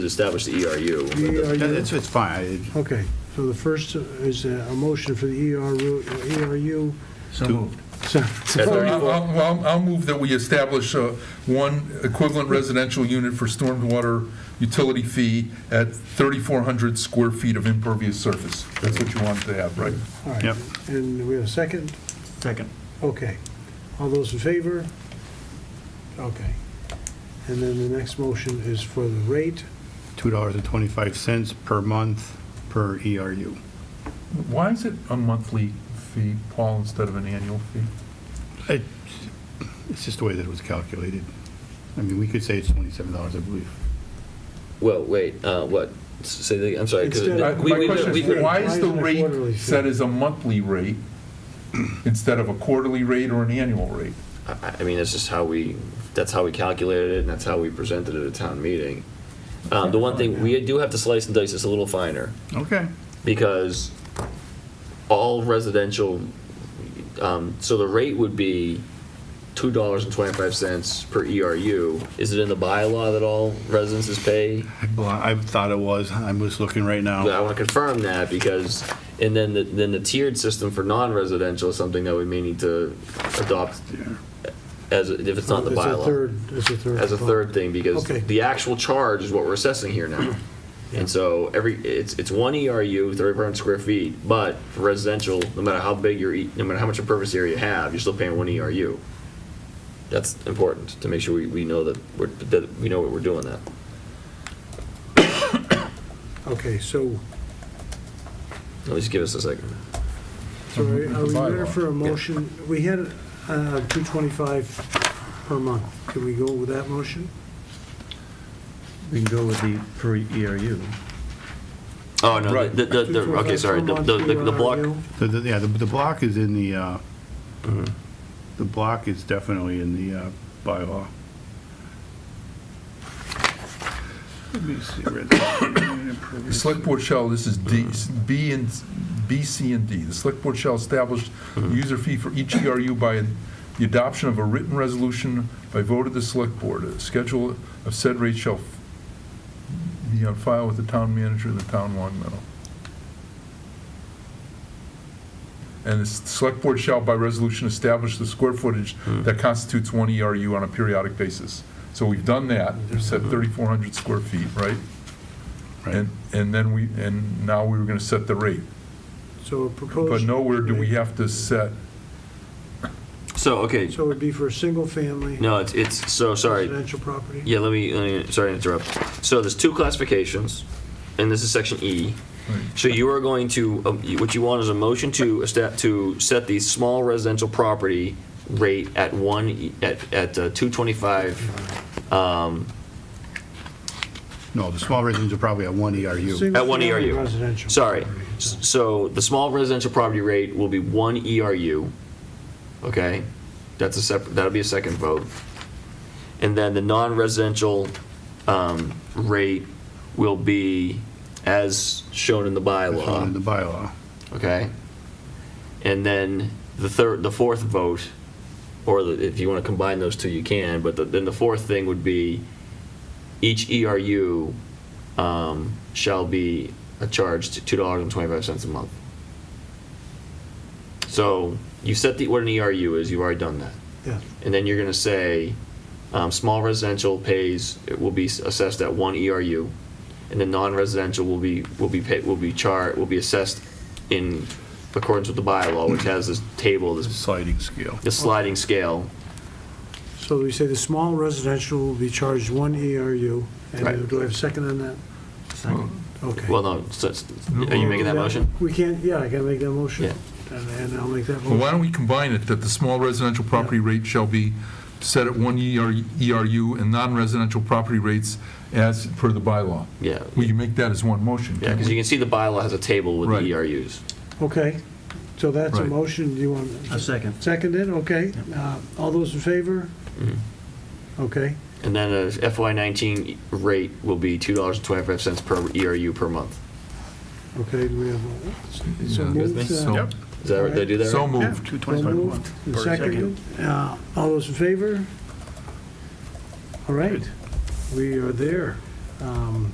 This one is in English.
establish the E ERU. E but the- ERU. That- It's, it's fine. E Okay, so the first is a a motion for the E ERU, ERU. So moved. So- I'll, I'll- I'll move that we establish uh, one equivalent residential unit for stormwater utility fee at 3,400 square feet of impervious surface. That's what you wanted to have, right? all right. Yep. And we have a second? Second. Okay. All those in favor? Okay. And then the next motion is for the rate. $2.25 per month per E ERU. Why is it a monthly fee, Paul, instead of an annual fee? It- It's just the way that it was calculated. I mean, we could say it's $27, I believe. Well, wait, uh, what? S- Say that, I'm sorry. 'cause Instead My of- we- my we- question we- is, we- why is the Why isn't it a quarterly rate fee? set as a monthly rate instead of a quarterly rate or an annual rate? I I mean, that's just how we, that's how we calculated it, and that's how we presented it at a town meeting. Um, The one thing, we do have to slice and dice this a little finer, Okay. because all residential, um, so the rate would be $2.25 per ERU. Is it in the bylaw that all residences pay? Well, I thought it was, I'm just looking right But I now. want to confirm that because, and then the, then the tiered system for non-residential is something that we may need to adopt as, if it's not in the It's a bylaw. third, it's a third. As a third thing, because Okay. the actual charge is what we're assessing here now. And so every, it's, it's one E ERU, 3,500 square feet, but for residential, no matter how big your, E- no matter how much impervious area you have, you're still paying one ERU. That's important to make sure we, we know that we're, that we know what we're doing that. Okay, so, At least give us a second. so are Mm-hmm. are we ready for a Bylaw. motion? We had uh, 225 per month. Can we go with that motion? We can go with the per E ERU. Oh, no, Right. the, the, the, okay, 225 sorry, per the, month the, the- the block, ERU. The- the- Yeah, the the block is in the, uh, the block is definitely in the uh, bylaw. Let me see. where that- The select board shall, this is D, B and, B, C, and D. The select board shall establish the user fee for each ERU by the adoption of a written resolution by vote of the select board. A schedule of said rate shall be on file with the town manager of the town Long Meadow. And the select board shall by resolution establish the square footage that constitutes one ERU on a periodic basis. So we've done that, we've said 3,400 square feet, right? Right. And, and then we, and now we were gonna set the rate. So a proposed. But nowhere do we have to set, so, okay, So it'd be for a single-family no, it's, it's, so, sorry, residential property? yeah, let me, let me, sorry to interrupt. So there's two classifications, and this is section E. So you are going to, um, you- what you want is a motion to, esta- to set the small residential property rate at one, e- at, at uh, 225, um, No, the small residents are probably at one E ERU. at one Single-family ERU. Residential. Sorry. property. S- So the small residential property rate will be one ERU, okay? That's a separate, that'll be a second vote. And then the non-residential um, rate will be as shown in the That's not um, in the bylaw, bylaw. okay? And then the third, the fourth vote, or the- if you want to combine those two, you can, but the- then the fourth thing would be each ERU um, shall be a charge to $2.25 a month. So you set the, what an ERU is, you've already done that. Yeah, And then you're going to say, um, small residential pays, it will be assessed at one ERU, and then non-residential will be, will be paid, will be chart, will be assessed in accordance with the bylaw, which has this table, It's a this, sliding scale. this sliding scale. so we say the small residential will be charged one ERU, Right. and do I have a second on that? Okay. Well, no, so it's- are you making that motion? We can't, yeah, I can make that motion, and and I'll make that well, motion. why don't we combine it, that the small residential property rate shall be set at one ER ERU and non-residential property rates as per the bylaw? Yeah. We can make that as one motion. Yeah, because you can see the bylaw has a table with Right. the E ERUs. Okay, so that's a Right. motion, do you want? A second. Seconded, okay. Uh, All those in favor? Mm-hmm. Okay, And then a FY19 rate will be $2.25 per ERU per month. okay, do we have, a- so Yeah. moved. uh, So- Yep. Is that right? Did I do that right? So Yeah, moved. Well 225 a moved, month. and Or seconded. Uh, All those in favor? All right, we are there. Um,